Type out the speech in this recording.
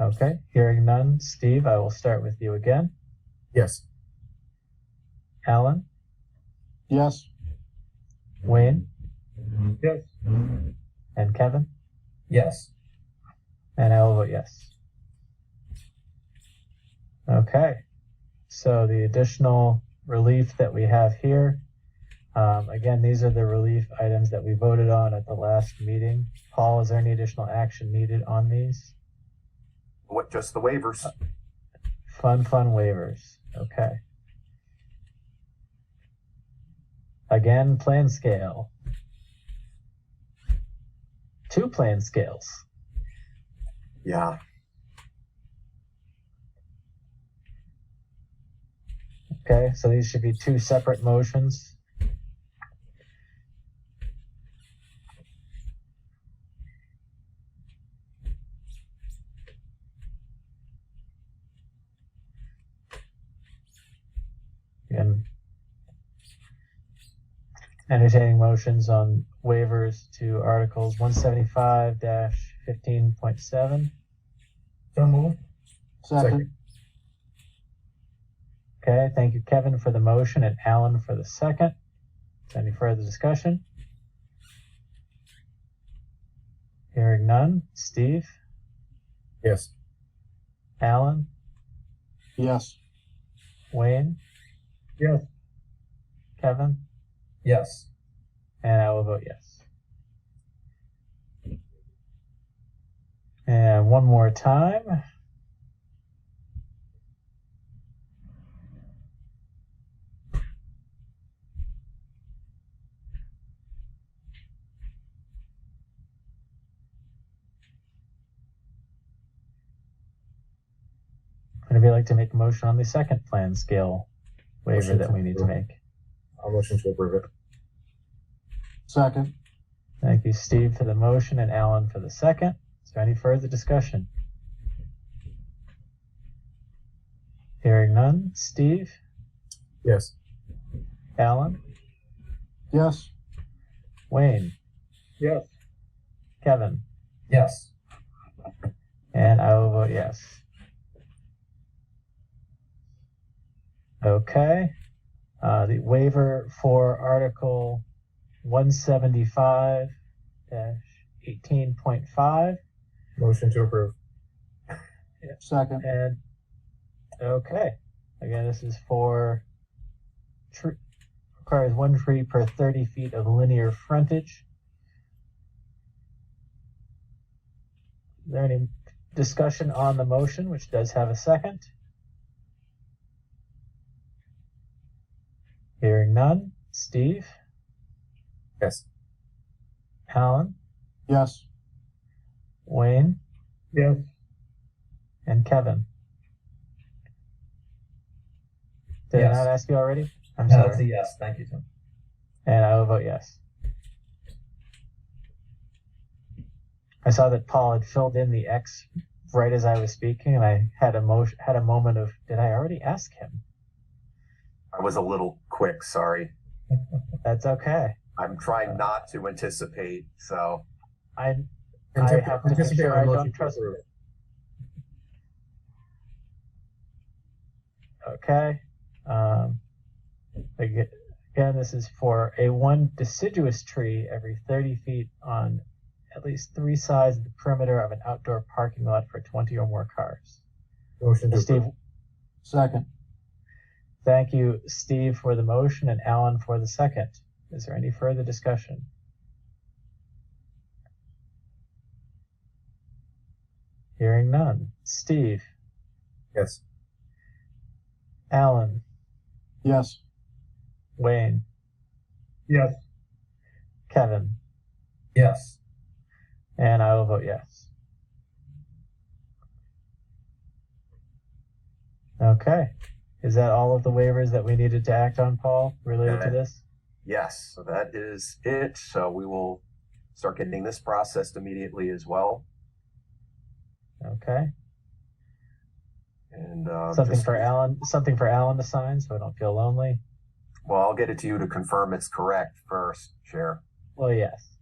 Okay, hearing none, Steve, I will start with you again. Yes. Alan, Yes. Wayne, Yes. and Kevin, Yes. and I will vote yes. Okay, so the additional relief that we have here, um, again, these are the relief items that we voted on at the last meeting. Paul, is there any additional action needed on these? What, just the waivers? Uh, Fun, fun waivers. Okay. Again, plan scale. Two plan scales. Yeah. Okay, so these should be two separate motions. And entertaining motions on waivers to articles one seventy-five fifteen point seven. So moved. Second. Okay, thank you, Kevin, for the motion and Alan for the second. Any further discussion? Hearing none. Steve, Yes. Alan, Yes. Wayne? Yes. Kevin? Yes. And I will vote yes. And one more time. Would anybody like to make a motion on the second plan scale waiver Motion that to we need to approve. make? I'll motion to approve it. Second. Thank you, Steve, for the motion and Alan for the second. Is there any further discussion? Hearing none. Steve, Yes. Alan, Yes. Wayne, Yes. Kevin, Yes. and I will vote yes. Okay. Uh, the waiver for Article 175 18.5 Motion to approve. Second. And okay, again, this is for tree requires one tree per thirty feet of linear frontage. Is there any discussion on the motion, which does have a second? Hearing none. Steve, Yes. Alan, Yes. Wayne, Yes. and Kevin. Did Yes. I not ask you already? I'm That's a Uh, yes. Thank you, Tim. And I will vote yes. I saw that Paul had filled in the X right as I was speaking, and I had a mo- had a moment of did I already ask him? I was a little quick, sorry. That's okay. I'm Uh, trying not to anticipate, so I I Anticipate- have to make anticipate sure our I motion don't to trust- approve. okay. Um, aga- again, this is for a one deciduous tree every 30 feet on at least three sides of the perimeter of an outdoor parking lot for 20 or more cars. Motion to Steve, approve. Second. Thank you, Steve, for the motion and Alan for the second. Is there any further discussion? Hearing none. Steve, Yes. Alan, Yes. Wayne, Yes. Kevin, Yes. and I will vote yes. Okay. Is that all of the waivers that we needed to act on, Paul, related to Okay. this? yes, so that is it. So we will start getting this processed immediately as well. Okay. And uh, Something just- for Alan, something for Alan to sign so I don't feel lonely. Well, I'll get it to you to confirm it's correct first, Chair. Well, yes.